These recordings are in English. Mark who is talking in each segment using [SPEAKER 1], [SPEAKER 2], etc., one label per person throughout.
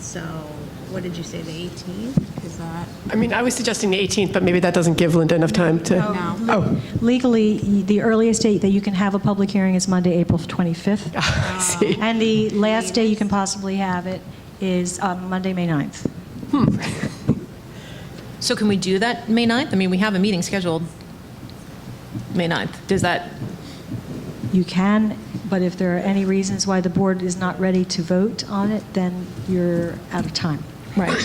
[SPEAKER 1] So what did you say, the 18th? Is that?
[SPEAKER 2] I mean, I was suggesting the 18th, but maybe that doesn't give Linda enough time to, oh,
[SPEAKER 3] Legally, the earliest date that you can have a public hearing is Monday, April 25th.
[SPEAKER 2] I see.
[SPEAKER 3] And the last day you can possibly have it is uh, Monday, May 9th.
[SPEAKER 4] So can we do that May 9th? I mean, we have a meeting scheduled May 9th. Does that,
[SPEAKER 3] You can, but if there are any reasons why the board is not ready to vote on it, then you're out of time.
[SPEAKER 4] right.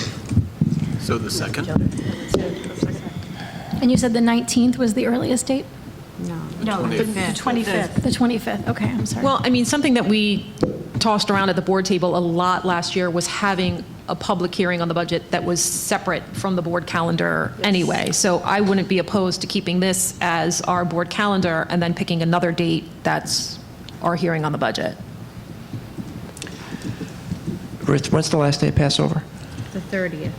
[SPEAKER 5] So the second?
[SPEAKER 6] And you said the 19th was the earliest date?
[SPEAKER 3] No, the 25th.
[SPEAKER 6] The 25th, okay, I'm sorry.
[SPEAKER 4] Well, I mean, something that we tossed around at the board table a lot last year was having a public hearing on the budget that was separate from the board calendar anyway. So I wouldn't be opposed to keeping this as our board calendar and then picking another date that's our hearing on the budget.
[SPEAKER 7] Ruth, when's the last day of Passover?
[SPEAKER 1] The 30th.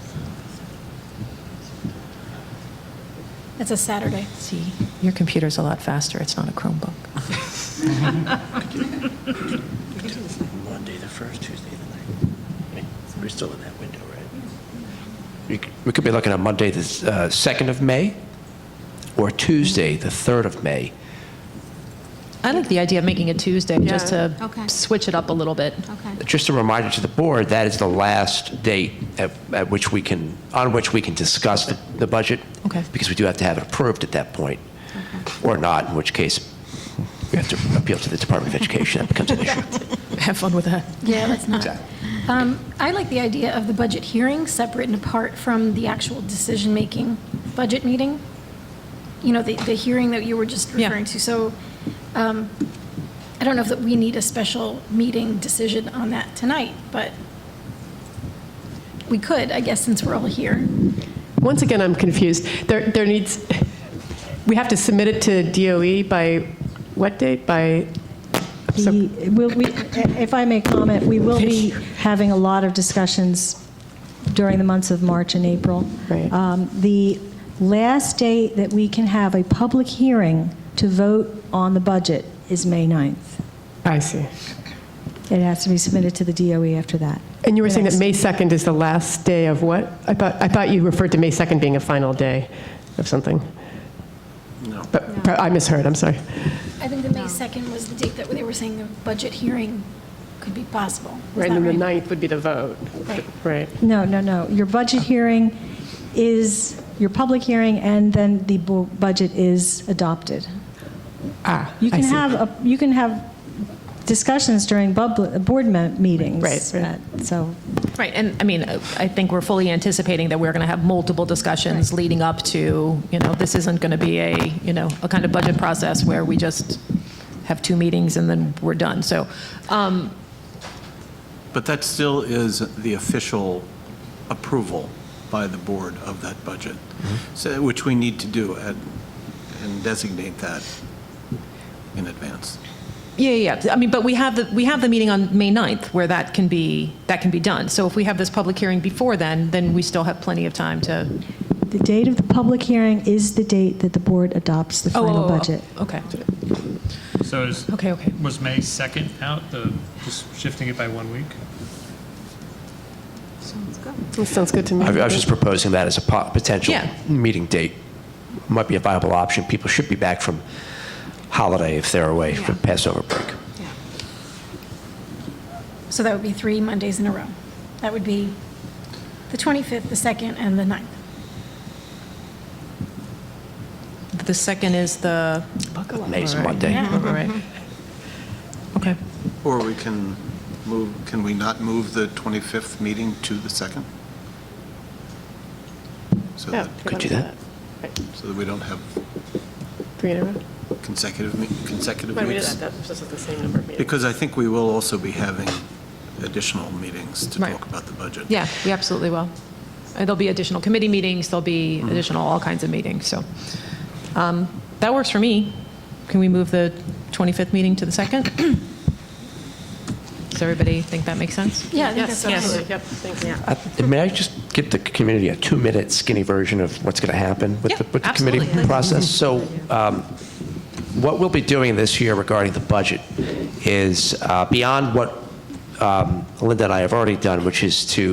[SPEAKER 6] It's a Saturday.
[SPEAKER 4] See, your computer's a lot faster. It's not a Chromebook.
[SPEAKER 5] Monday, the first, Tuesday, the ninth. We're still in that window, right?
[SPEAKER 7] We c- we could be looking at Monday, the s- uh, 2nd of May, or Tuesday, the 3rd of May.
[SPEAKER 4] I like the idea of making it Tuesday, just to
[SPEAKER 1] Okay.
[SPEAKER 4] switch it up a little bit.
[SPEAKER 1] Okay.
[SPEAKER 7] Just a reminder to the board, that is the last date at at which we can, on which we can discuss the- the budget.
[SPEAKER 4] Okay.
[SPEAKER 7] Because we do have to have it approved at that point, or not, in which case we have to appeal to the Department of Education. That becomes an issue.
[SPEAKER 4] Have fun with that.
[SPEAKER 6] Yeah, that's not. Um, I like the idea of the budget hearing separate and apart from the actual decision-making budget meeting. You know, the, the hearing that you were just
[SPEAKER 4] Yeah.
[SPEAKER 6] referring to. So um, I don't know if that we need a special meeting decision on that tonight, but we could, I guess, since we're all here.
[SPEAKER 2] Once again, I'm confused. There, there needs, we have to submit it to DOE by what date? By,
[SPEAKER 3] The- will we- If I may comment, we will be having a lot of discussions during the months of March and April.
[SPEAKER 2] Right.
[SPEAKER 3] Um, The last day that we can have a public hearing to vote on the budget is May 9th.
[SPEAKER 2] I see.
[SPEAKER 3] It has to be submitted to the DOE after that.
[SPEAKER 2] And you were saying that May 2nd is the last day of what? I thought, I thought you referred to May 2nd being a final day of something. No. But I misheard, I'm sorry.
[SPEAKER 6] I think the May 2nd was the date that they were saying the budget hearing could be possible. Is
[SPEAKER 2] Right,
[SPEAKER 6] that
[SPEAKER 2] and then the 9th would be the vote.
[SPEAKER 6] Right.
[SPEAKER 2] Right.
[SPEAKER 3] No, no, no. Your budget hearing is, your public hearing, and then the bu- budget is adopted.
[SPEAKER 2] Ah,
[SPEAKER 3] You
[SPEAKER 2] I
[SPEAKER 3] can
[SPEAKER 2] see.
[SPEAKER 3] have, a- you can have discussions during bub- board me- meetings.
[SPEAKER 2] Right, right.
[SPEAKER 3] uh, So
[SPEAKER 4] Right, and I mean, I think we're fully anticipating that we're going to have multiple discussions leading up to, you know, this isn't going to be a, you know, a kind of budget process where we just have two meetings and then we're done. So, um,
[SPEAKER 5] But that still is the official approval by the board of that budget, so, which we need to do at- and designate that in advance.
[SPEAKER 4] yeah, yeah, yeah. I mean, but we have the, we have the meeting on May 9th where that can be, that can be done. So if we have this public hearing before then, then we still have plenty of time to.
[SPEAKER 3] the date of the public hearing is the date that the board adopts the
[SPEAKER 4] Oh,
[SPEAKER 3] final
[SPEAKER 4] oh, oh,
[SPEAKER 3] budget.
[SPEAKER 4] Okay.
[SPEAKER 8] So is,
[SPEAKER 4] Okay, okay.
[SPEAKER 8] was May 2nd out, the, just shifting it by one week?
[SPEAKER 2] That Sounds good to me.
[SPEAKER 7] I I was just proposing that as a po- potential
[SPEAKER 4] Yeah.
[SPEAKER 7] meeting date. Might be a viable option. People should be back from holiday if they're away for Passover break.
[SPEAKER 6] So that would be three Mondays in a row. That would be the 25th, the 2nd, and the 9th.
[SPEAKER 4] The second is the.
[SPEAKER 7] Amazing
[SPEAKER 4] All right.
[SPEAKER 7] Monday.
[SPEAKER 4] All right. Okay.
[SPEAKER 5] Or we can move, can we not move the 25th meeting to the 2nd? So
[SPEAKER 2] Oh,
[SPEAKER 5] that,
[SPEAKER 7] Could do that.
[SPEAKER 5] so that we don't have
[SPEAKER 2] Three in a row?
[SPEAKER 5] consecutive, me- consecutive
[SPEAKER 2] Why do we do
[SPEAKER 5] weeks?
[SPEAKER 2] that? That's just the same number of meetings.
[SPEAKER 5] Because I think we will also be having additional meetings to
[SPEAKER 4] Right.
[SPEAKER 5] talk about the budget.
[SPEAKER 4] Yeah, we absolutely will. And There'll be additional committee meetings, there'll be additional, all kinds of meetings, so. um, That works for me. Can we move the 25th meeting to the 2nd? Does everybody think that makes sense?
[SPEAKER 6] Yeah, I think that's what I would-
[SPEAKER 2] Yep, thank you.
[SPEAKER 7] I- May I just give the community a two-minute skinny version of what's going to happen with
[SPEAKER 4] Yeah,
[SPEAKER 7] the, with the committee
[SPEAKER 4] absolutely.
[SPEAKER 7] process? So um, what we'll be doing this year regarding the budget is uh, beyond what um, Linda and I have already done, which is to